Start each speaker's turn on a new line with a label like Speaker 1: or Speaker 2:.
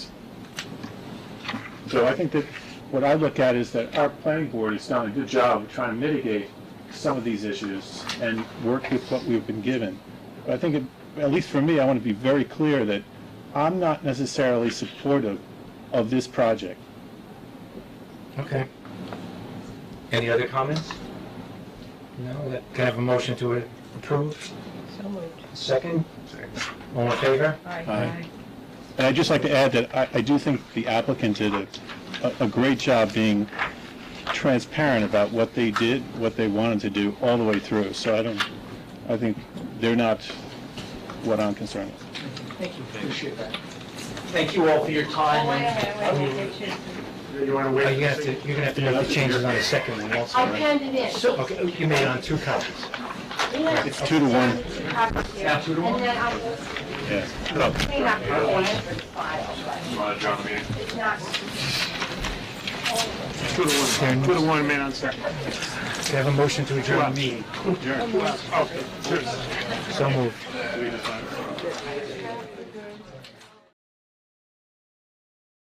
Speaker 1: So I think that what I look at is that our planning board has done a good job of trying to mitigate some of these issues and work with what we've been given. But I think, it- at least for me, I want to be very clear that I'm not necessarily supportive of this project.
Speaker 2: Okay. Any other comments? No, Let- can I have a motion to approve?
Speaker 3: So moved.
Speaker 2: Second? All in favor?
Speaker 1: Aye. And I'd just like to add that I, I do think the applicant did a, a- a great job being transparent about what they did, what they wanted to do, all the way through. So I don't, I think they're not what I'm concerned with.
Speaker 4: Thank you, appreciate that. Thank you all for your time. and- You want
Speaker 2: Well,
Speaker 4: to wait?
Speaker 2: You're gonna Uh, have to, you're gonna have to make the changes on the second one also,
Speaker 5: I
Speaker 2: right?
Speaker 5: penned it in.
Speaker 4: So,
Speaker 2: Okay, you made it on two copies.
Speaker 5: Yeah.
Speaker 1: It's two to one,
Speaker 5: It's covered here.
Speaker 4: Now two to one?
Speaker 5: And then I will
Speaker 1: yeah.
Speaker 5: clean up the answered file, but it's not,
Speaker 4: Two to one, two to one, man on second.
Speaker 2: Can I have a motion to adjourn the meeting?
Speaker 4: Okay, cheers.
Speaker 2: So moved.